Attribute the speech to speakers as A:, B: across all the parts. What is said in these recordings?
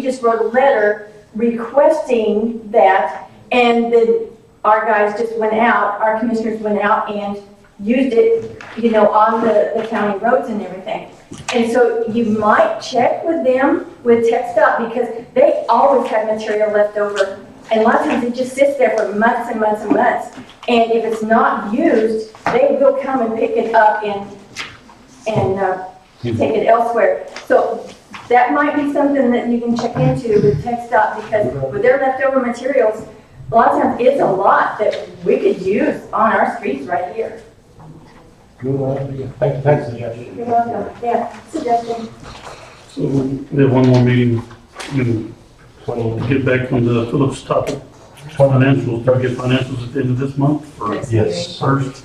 A: We just wrote a letter requesting that, and then our guys just went out, our commissioners went out and used it, you know, on the, the county roads and everything. And so you might check with them, with Tech Stop, because they always have material left over. And a lot of times it just sits there for months and months and months. And if it's not used, they will come and pick it up and, and, uh, take it elsewhere. So that might be something that you can check into with Tech Stop, because with their leftover materials, a lot of times it's a lot that we could use on our streets right here.
B: Good idea.
C: Thanks, thanks, suggestion.
A: You're welcome. Yeah, suggestion.
D: So we have one more meeting, and
C: Twenty,
D: get back on the Phillips topic,
C: twenty,
D: financials, target financials at the end of this month, or
C: yes,
D: first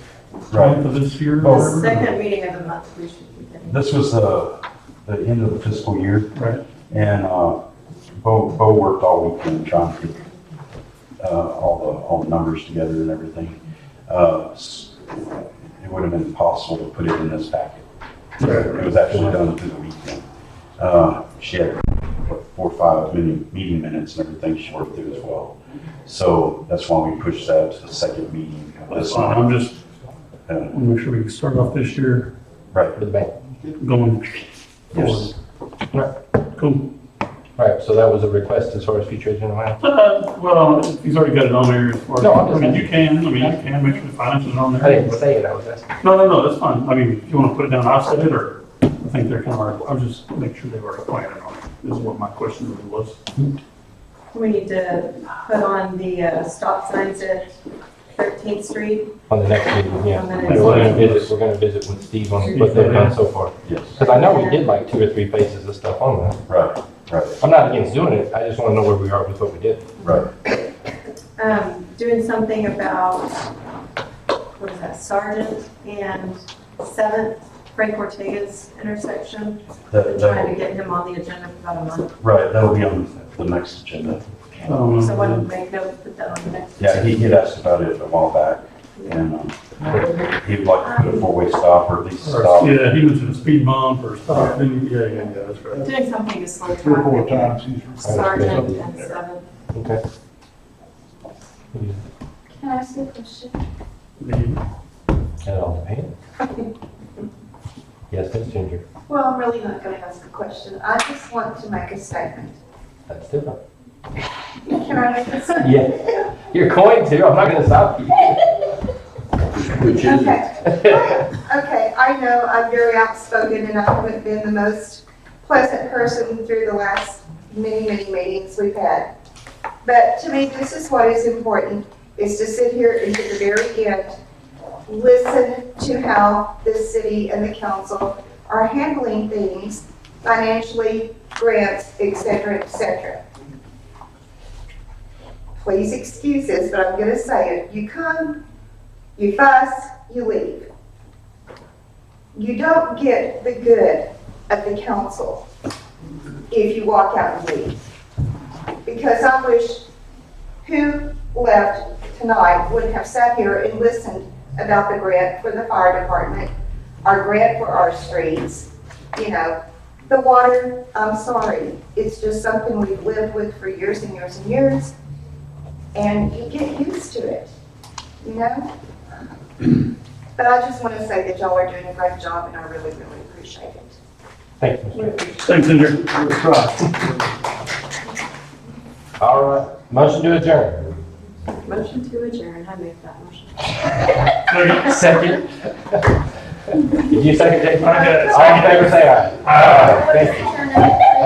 B: Right.
D: month of this year.
E: The
C: Oh,
D: or-
E: second meeting of the month, we should be getting.
B: This was the, the end of the fiscal year
D: Right,
B: and, uh, Bo, Bo worked all weekend trying to get, uh, all the, all the numbers together and everything. Uh, s- it would have been impossible to put it in this packet. It was actually done through the weekend. Uh, she had what, four, or five meeting, meeting minutes and everything she worked through as well. So that's why we pushed that to the second meeting of
D: that's
B: this
D: fine,
E: Uh-huh.
B: month.
D: I'm just,
B: Uh,
D: wanna make sure we can start off this year
B: Right,
C: for the bank.
D: going
B: yes.
D: forward. Cool.
C: All right, so that was a request as far as future agenda items.
D: Uh, well, he's already got it on there as far
C: No, I'm
D: as, I
C: just-
D: mean, you can, I mean, you can make sure the finances are on there.
C: I didn't say it, I was asking.
D: No, no, no, that's fine. I mean, if you want to put it down, I'll set it, or I think they're kind of, I'll just make sure they've already planned it on it, is what my question really was.
E: We need to put on the uh, stop signs at 13th Street.
C: On the next meeting, yeah.
E: On the
C: We're
E: next
C: gonna
D: meeting.
C: visit, we're gonna visit with Steve on what they've done so far.
B: Yes,
C: Because I know we did like two or three places of stuff on that.
B: right, right,
C: I'm not against doing it, I just want to know where we are with what we did.
B: right.
E: Um, Doing something about, what is that, Sergeant and Seventh, Frank Ortega's intersection.
B: That,
E: Trying to
B: that,
E: get him on the agenda for about a month.
B: right, that'll be on the next agenda.
D: Um,
E: Someone make note, put that on the next.
B: Yeah, he, he'd asked about it a while back, and, um, he'd like to put a four-way stop or at least stop.
D: Yeah, he mentioned a speed bump or stop, didn't he? Yeah, yeah, yeah, that's right.
E: Doing something to slow
F: Three or four
E: traffic.
F: times he's
E: Sergeant and Seventh.
C: Okay.
G: Can I ask you a question?
D: The-
C: It all depends. Yes, Ms. Ginger,
G: Well, I'm really not gonna ask a question. I just want to make a statement.
C: that's different.
G: Can I make a statement?
C: Yeah, you're going to, I'm not gonna stop you.
G: Okay. Okay, I know I'm very outspoken and I haven't been the most pleasant person through the last many, many meetings we've had. But to me, this is what is important, is to sit here and to the very end, listen to how this city and the council are handling things financially, grants, et cetera, et cetera. Please excuse this, but I'm gonna say it. You come you fuss, you leave. You don't get the good of the council if you walk out and leave. Because I wish who left tonight would have sat here and listened about the grant for the fire department, our grant for our streets, you know. The water, I'm sorry, it's just something we've lived with for years and years and years. And you get used to it, you know? But I just want to say that y'all are doing a great job and I really, really appreciate it.
C: Thank you, Ms. Ginger.
D: Thanks, Ginger.
C: All right, motion to adjourn.
E: Motion to adjourn, I make that motion.
D: Second.
C: Second. Did you second, Jake?
D: I got it.
C: All in favor, say aye.
D: Aye.
C: Thank you.
G: Turn it.